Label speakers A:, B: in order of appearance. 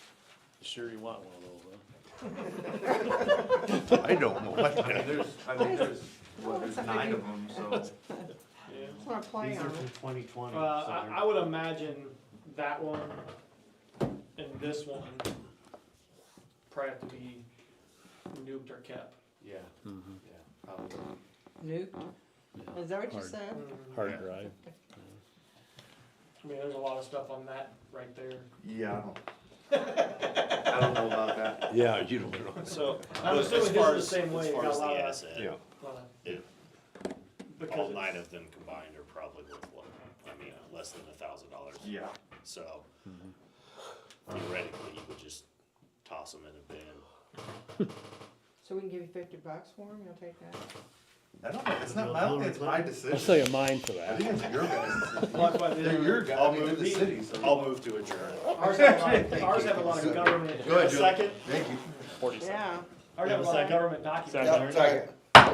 A: Sure you want one of those, huh?
B: I don't know what
C: I mean,
B: that
C: there's, I think there's, well, there's nine of them, so.
A: Yeah.
D: That's what I'm
E: These
D: playing
E: are
D: on.
E: from twenty twenty,
A: Uh, I, I
E: so
A: would imagine that one and this one probably have to be nuked or kept.
E: they're, yeah, yeah, probably.
D: Nuked? Is that what you
F: Hard.
D: said?
F: hard drive.
A: I mean, there's a lot of stuff on that right there.
C: Yeah, I don't, I don't know about that.
B: is. Yeah, you don't know.
A: So I'm
G: Well,
A: assuming
G: as
A: his
G: far
A: is
G: as-
A: the same way.
G: As
A: it
G: far
A: got a
G: as the
A: lot of-
B: Yeah.
G: asset,
A: lot of-
G: it- all
A: Because
G: nine
A: it's,
G: of them combined are probably worth, what, I mean, uh, less than a thousand dollars.
C: Yeah,
G: So theoretically, you would just toss them in a bin.
D: So we can give you fifty bucks for them, you'll take that?
C: I don't, know. it's not, I don't think it's my decision.
F: I'll sell you mine for
C: I think
F: that.
C: it's your guys'
A: Well, that's why they-
C: decision. They're your guys, I
G: I'll
C: mean, they're
G: move
C: the
G: me.
C: city, Oh, so.
G: I'll move to adjourn.
A: ours have a lot of,
C: Thank
A: ours
C: you.
A: have a lot of government,
C: Good.
G: Second?
C: Thank you.
G: Forty seconds.
D: Yeah.
A: ours have a lot of
F: Second.
A: government documents.
F: Second.
A: Sorry.
C: Second.